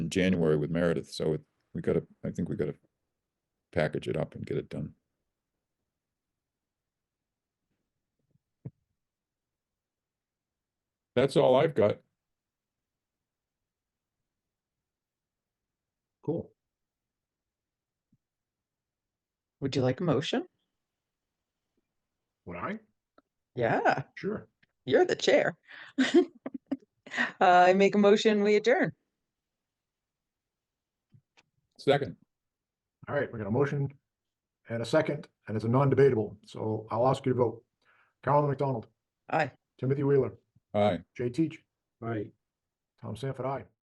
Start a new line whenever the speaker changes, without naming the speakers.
January with Meredith, so it, we gotta, I think we gotta package it up and get it done. That's all I've got.
Cool.
Would you like a motion?
Would I?
Yeah,
Sure.
you're the chair. Uh, I make a motion, we adjourn.
Second,
All right, we got a motion and a second, and it's a non-debatable, so I'll ask you to vote. Carolyn McDonald,
Aye.
Timothy Wheeler,
aye.
Jay Teach,
Right.
Tom Sanford, aye.